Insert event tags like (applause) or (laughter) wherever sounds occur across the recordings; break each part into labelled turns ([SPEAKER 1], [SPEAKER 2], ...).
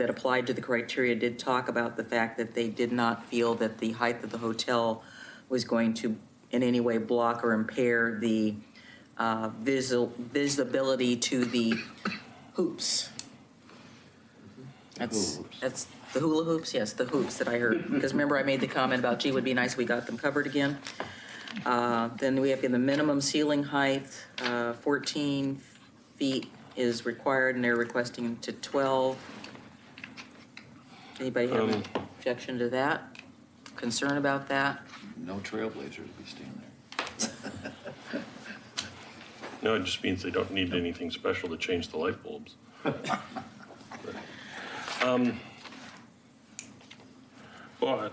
[SPEAKER 1] that applied to the criteria did talk about the fact that they did not feel that the height of the hotel was going to in any way block or impair the uh, visi- visibility to the hoops. That's, that's the hula hoops, yes, the hoops that I heard. Because remember, I made the comment about, gee, would be nice, we got them covered again. Uh, Then we have the minimum ceiling height, uh, 14 feet is required, and they're requesting to 12. Anybody have an
[SPEAKER 2] Um,
[SPEAKER 1] objection to that? Concern about that?
[SPEAKER 3] No trailblazers would be standing there.
[SPEAKER 2] No, it just means they don't need anything special to change the light bulbs. Um, But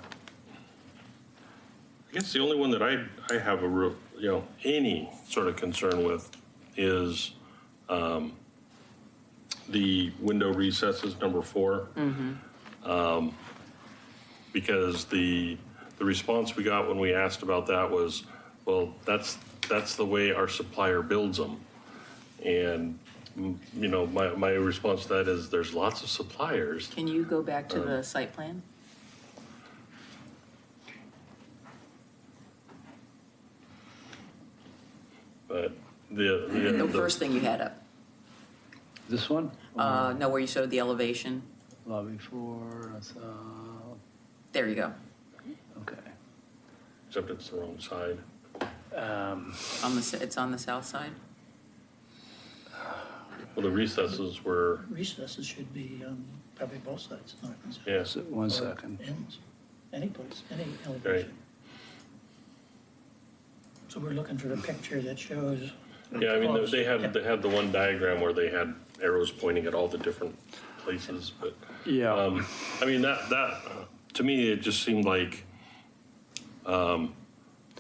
[SPEAKER 2] I guess the only one that I, I have a real, you know, any sort of concern with is um, the window recesses, number four. Um, Because the, the response we got when we asked about that was, well, that's, that's the way our supplier builds them. And, mm, you know, my, my response to that is there's lots of suppliers.
[SPEAKER 1] Can you go back
[SPEAKER 2] Um,
[SPEAKER 1] to the site plan?
[SPEAKER 2] But the, the.
[SPEAKER 1] The
[SPEAKER 2] the-
[SPEAKER 1] first thing you had up,
[SPEAKER 4] This one?
[SPEAKER 2] Uh-huh.
[SPEAKER 1] uh, no, where you showed the elevation,
[SPEAKER 4] Lobby four, I saw,
[SPEAKER 1] there you go,
[SPEAKER 4] okay.
[SPEAKER 2] Except it's the wrong side.
[SPEAKER 4] Um,
[SPEAKER 1] on the, s- it's on the south side?
[SPEAKER 2] Well, the recesses were,
[SPEAKER 5] Recesses should be um, probably both sides, not just
[SPEAKER 2] yeah,
[SPEAKER 4] so- One second.
[SPEAKER 5] ends, any place, any elevation. So we're looking for the picture that shows.
[SPEAKER 2] yeah, I mean, they- they had, they had the one diagram where they had arrows pointing at all the different places, but.
[SPEAKER 4] Yeah,
[SPEAKER 2] Um, I mean, that, that, to me, it just seemed like um,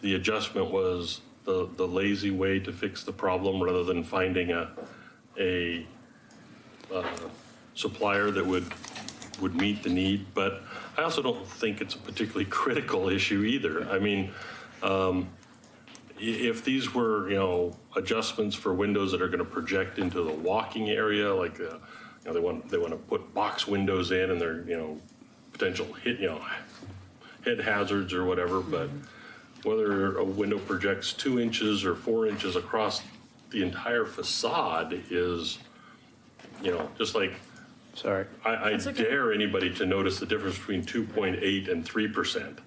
[SPEAKER 2] the adjustment was the, the lazy way to fix the problem rather than finding a, a uh, supplier that would, would meet the need. But I also don't think it's a particularly (laughs) critical issue either. I mean, i- if these were, you know, adjustments for windows that are going to project into the walking area, like, uh, you know, they want, they want to put box windows in and they're, you know, potential hit, you know, head hazards or whatever, but
[SPEAKER 1] Mm-hmm.
[SPEAKER 2] whether a window projects two inches or four inches across the entire facade is, you know, just like,
[SPEAKER 4] sorry.
[SPEAKER 2] I, I dare anybody to notice the difference between 2.8 and 3%.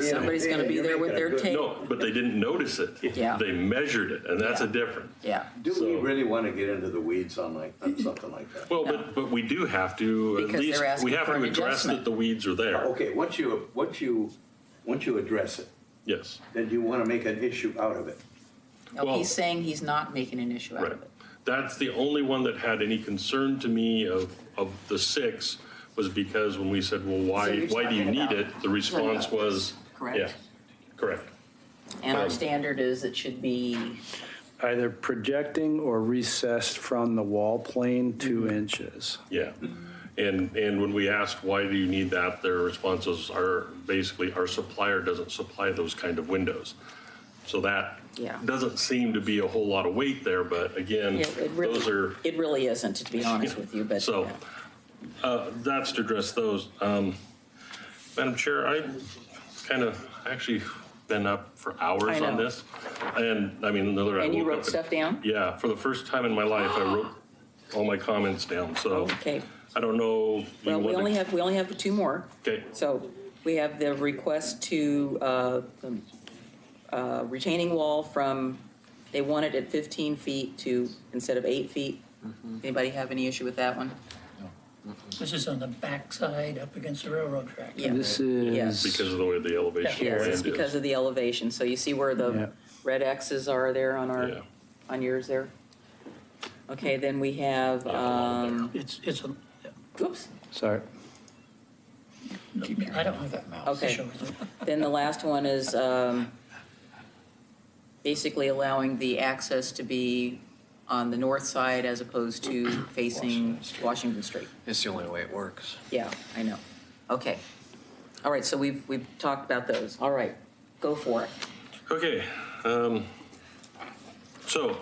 [SPEAKER 1] Somebody's gonna be there with their tape.
[SPEAKER 2] No, but they didn't notice it.
[SPEAKER 1] Yeah.
[SPEAKER 2] They measured it, and that's a
[SPEAKER 1] Yeah.
[SPEAKER 2] difference.
[SPEAKER 1] Yeah,
[SPEAKER 3] Do we
[SPEAKER 2] So-
[SPEAKER 3] really want to get into the weeds on like, on something like that?
[SPEAKER 2] Well,
[SPEAKER 1] No.
[SPEAKER 2] but, but we do have to, at
[SPEAKER 1] Because they're
[SPEAKER 2] least,
[SPEAKER 1] asking
[SPEAKER 2] we have
[SPEAKER 1] for
[SPEAKER 2] to
[SPEAKER 1] an
[SPEAKER 2] address
[SPEAKER 1] adjustment.
[SPEAKER 2] that the weeds are there.
[SPEAKER 3] Okay, once you, once you, once you address it,
[SPEAKER 2] Yes,
[SPEAKER 3] then you want to make an issue out of it.
[SPEAKER 1] no,
[SPEAKER 2] Well-
[SPEAKER 1] he's saying he's not making an issue out
[SPEAKER 2] right.
[SPEAKER 1] of it.
[SPEAKER 2] That's the only one that had any concern to me of, of the six, was because when we said, well,
[SPEAKER 1] So
[SPEAKER 2] why,
[SPEAKER 1] you're
[SPEAKER 2] why do you
[SPEAKER 1] talking
[SPEAKER 2] need
[SPEAKER 1] about
[SPEAKER 2] it? The response was,
[SPEAKER 1] Correct.
[SPEAKER 2] yeah, correct.
[SPEAKER 1] And
[SPEAKER 2] Um,
[SPEAKER 1] our standard is it should be
[SPEAKER 4] Either projecting or recessed from the wall plane two inches.
[SPEAKER 2] Yeah. And, and when we asked, why do you need that, their responses are basically, our supplier doesn't supply those kind of windows. So that
[SPEAKER 1] Yeah.
[SPEAKER 2] doesn't seem to be a whole lot of weight there, but again,
[SPEAKER 1] Yeah, it really-
[SPEAKER 2] those are,
[SPEAKER 1] It really isn't, to be honest with you, but.
[SPEAKER 2] so uh, that's to address those. Um, Madam Chair, I kind of actually been up for
[SPEAKER 1] I
[SPEAKER 2] hours on
[SPEAKER 1] know.
[SPEAKER 2] this. And I mean, the other. I
[SPEAKER 1] And you
[SPEAKER 2] woke
[SPEAKER 1] wrote
[SPEAKER 2] up and-
[SPEAKER 1] stuff down?
[SPEAKER 2] Yeah, for the first time in my life, I wrote all my comments down, so.
[SPEAKER 1] Oh, Okay,
[SPEAKER 2] I don't know. if you
[SPEAKER 1] well, we
[SPEAKER 2] wanna-
[SPEAKER 1] only have, we only have two more.
[SPEAKER 2] Okay,
[SPEAKER 1] So we have the request to, uh, um, uh, retaining wall from, they want it at 15 feet to, instead of eight feet.
[SPEAKER 2] Mm-hmm.
[SPEAKER 1] Anybody have any issue with that one?
[SPEAKER 5] This is on the backside up against the railroad track.
[SPEAKER 1] Yeah.
[SPEAKER 4] This
[SPEAKER 1] Yes.
[SPEAKER 2] because
[SPEAKER 4] is,
[SPEAKER 2] of the way the elevation
[SPEAKER 1] Yes, it's
[SPEAKER 2] land
[SPEAKER 1] because
[SPEAKER 2] is.
[SPEAKER 1] of the elevation. So you see where
[SPEAKER 4] Yeah.
[SPEAKER 1] the red X's are there on
[SPEAKER 2] Yeah.
[SPEAKER 1] our, on yours there? Okay, then we have,
[SPEAKER 2] a lot of
[SPEAKER 1] um,
[SPEAKER 5] It's, it's, a-
[SPEAKER 1] oops.
[SPEAKER 4] sorry.
[SPEAKER 5] I don't have that mouse to
[SPEAKER 1] Okay.
[SPEAKER 5] show you.
[SPEAKER 1] Then the last one is um, basically allowing the access to be on the north side as opposed to facing Washington Street.
[SPEAKER 6] It's the only way it works.
[SPEAKER 1] Yeah, I know. Okay. All right, so we've, we've talked about those. All right, go for it.
[SPEAKER 2] Okay, um, so,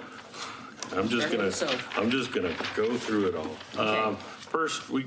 [SPEAKER 2] I'm just
[SPEAKER 1] Everything
[SPEAKER 2] gonna,
[SPEAKER 1] so.
[SPEAKER 2] I'm just gonna go through it all.
[SPEAKER 1] Okay.
[SPEAKER 2] Um, first, we,